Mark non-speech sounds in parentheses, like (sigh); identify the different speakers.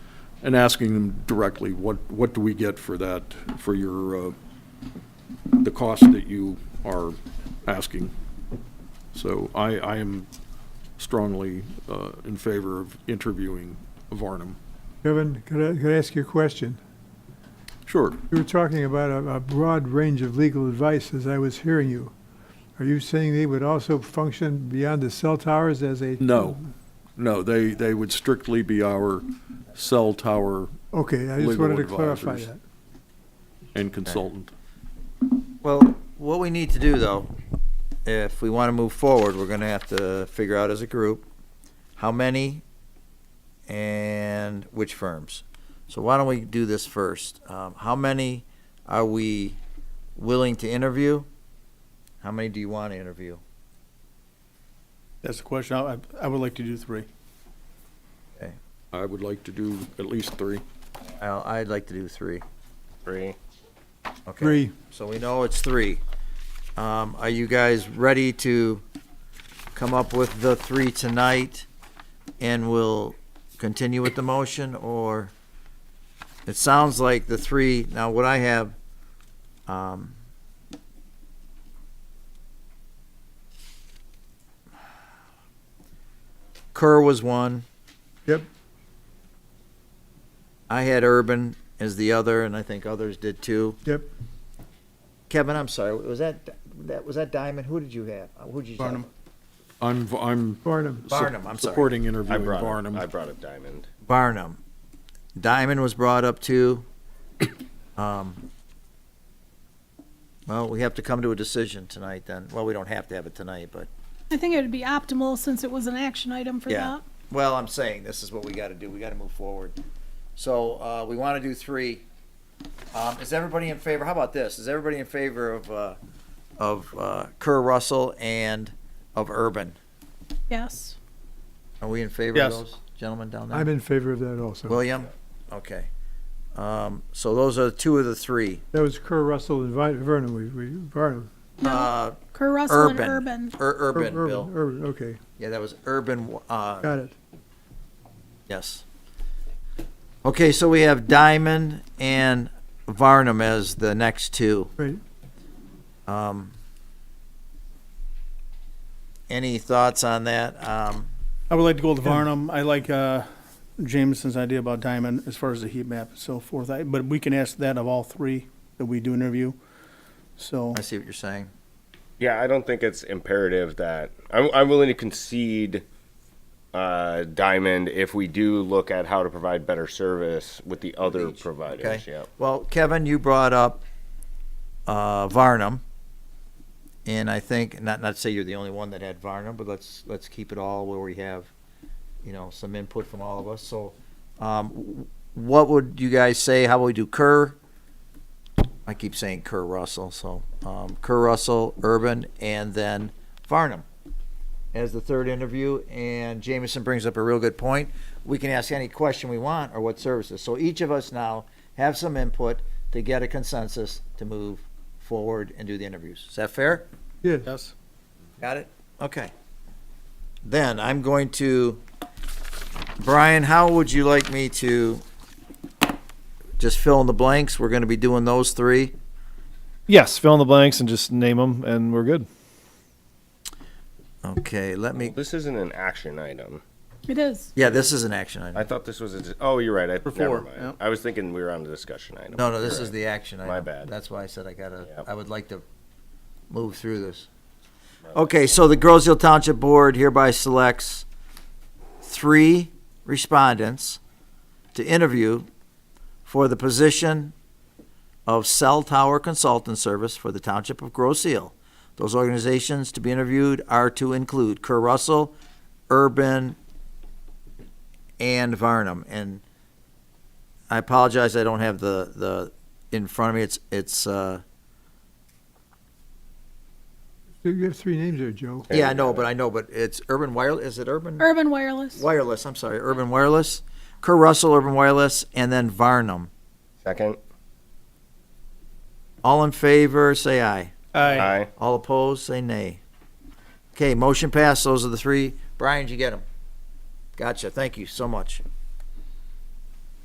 Speaker 1: and asking them directly, what, what do we get for that, for your, uh, the cost that you are asking? So I, I am strongly uh, in favor of interviewing Varnum.
Speaker 2: Kevin, could I, could I ask you a question?
Speaker 1: Sure.
Speaker 2: You were talking about a, a broad range of legal advice as I was hearing you. Are you saying they would also function beyond the cell towers as a?
Speaker 1: No, no, they, they would strictly be our cell tower
Speaker 2: Okay, I just
Speaker 1: Legal
Speaker 2: wanted to clarify
Speaker 1: advisors.
Speaker 2: that.
Speaker 1: and consultant.
Speaker 3: Well, what we need to do though, if we want to move forward, we're gonna have to figure out as a group how many and which firms. So why don't we do this first? Um, how many are we willing to interview? How many do you want to interview?
Speaker 4: That's the question. I, I would like to do three.
Speaker 1: I would like to do at least three.
Speaker 3: I'll, I'd like to do three.
Speaker 5: Three.
Speaker 3: Okay.
Speaker 2: Three,
Speaker 3: So we know it's three. Um, are you guys ready to come up with the three tonight? And we'll continue with the motion, or it sounds like the three, now what I have, um, Kerr was one.
Speaker 2: Yep.
Speaker 3: I had Urban as the other, and I think others did too.
Speaker 2: Yep.
Speaker 3: Kevin, I'm sorry, was that, that, was that Diamond? Who did you have? Uh, Who'd you?
Speaker 4: Barnum.
Speaker 1: I'm, I'm
Speaker 2: Barnum.
Speaker 1: sup-
Speaker 3: Barnum, I'm sorry.
Speaker 1: Supporting interviewing
Speaker 5: brought up-
Speaker 1: Varnum.
Speaker 5: I brought up Diamond.
Speaker 3: Barnum. Diamond was brought up (coughs) too. Um, Well, we have to come to a decision tonight then. Well, we don't have to have it tonight, but,
Speaker 6: I think it would be optimal since it was an action item for
Speaker 3: Yeah.
Speaker 6: that.
Speaker 3: well, I'm saying this is what we gotta do. We gotta move forward. So, uh, we wanna do three. Um, is everybody in favor? How about this? Is everybody in favor of, uh, of, uh, Kerr Russell and of Urban?
Speaker 6: Yes.
Speaker 3: Are we in favor of
Speaker 4: Yes.
Speaker 3: those gentlemen down there?
Speaker 2: I'm in favor of that also.
Speaker 3: William? Okay. Um, so those are two of the three.
Speaker 2: That was Kerr, Russell, and Vi- Vernon, we, we, Barnum.
Speaker 6: No,
Speaker 3: Uh,
Speaker 6: Kerr Russell and
Speaker 3: urban.
Speaker 6: Urban.
Speaker 3: Ur- urban,
Speaker 2: Ur-
Speaker 3: Bill.
Speaker 2: Urban, okay,
Speaker 3: Yeah, that was urban, uh,
Speaker 2: got it.
Speaker 3: yes. Okay, so we have Diamond and Varnum as the next two.
Speaker 2: Right.
Speaker 3: Um, any thoughts on that? Um,
Speaker 4: I would like to go with Varnum. I like, uh, Jameson's idea about Diamond as far as the heat map and so forth. I, but we can ask that of all three that we do interview. So,
Speaker 3: I see what you're saying.
Speaker 5: Yeah, I don't think it's imperative that I'm, I'm willing to concede uh, Diamond if we do look at how to provide better service with the other
Speaker 3: each,
Speaker 5: providers.
Speaker 3: okay.
Speaker 5: Yep.
Speaker 3: Well, Kevin, you brought up, uh, Varnum. And I think, not, not to say you're the only one that had Varnum, but let's, let's keep it all where we have, you know, some input from all of us. So, um, w- what would you guys say? How about we do Kerr? I keep saying Kerr Russell, so, um, Kerr Russell, Urban, and then Varnum as the third interview. And Jameson brings up a real good point. We can ask any question we want or what services. So each of us now have some input to get a consensus to move forward and do the interviews. Is that fair?
Speaker 2: Yeah,
Speaker 4: yes.
Speaker 3: Got it? Okay. Then I'm going to, Brian, how would you like me to just fill in the blanks? We're going to be doing those three.
Speaker 7: Yes, fill in the blanks and just name them, and we're good.
Speaker 3: Okay, let
Speaker 5: Well,
Speaker 3: me,
Speaker 5: this isn't an action item.
Speaker 6: It is.
Speaker 3: yeah, this is an action item.
Speaker 5: I thought this was a. dis- Oh, you're right. I,
Speaker 4: For
Speaker 5: never
Speaker 4: four,
Speaker 5: mind.
Speaker 4: yep.
Speaker 5: I was thinking we were on the discussion item.
Speaker 3: No, no, this
Speaker 5: You're
Speaker 3: is the action item.
Speaker 5: My bad.
Speaker 3: That's why I said I gotta,
Speaker 5: Yep.
Speaker 3: I would like to move through this. Okay, so the Groseal Township Board hereby selects three respondents to interview for the position of cell tower consultant service for the Township of Groseal. Those organizations to be interviewed are to include Kerr Russell, Urban, and Varnum. And I apologize, I don't have the, the, in front of me, it's, it's, uh,
Speaker 2: you have three names there, Joe.
Speaker 3: yeah, I know, but I know, but it's Urban Wireless, is it Urban?
Speaker 6: Urban Wireless.
Speaker 3: Wireless, I'm sorry, Urban Wireless, Kerr Russell, Urban Wireless, and then Varnum.
Speaker 5: right. Second.
Speaker 3: All in favor, say aye.
Speaker 4: I,
Speaker 5: Aye.
Speaker 3: All opposed, say nay. Okay, motion passed, those are the three. Brian, did you get them? Gotcha, thank you so much.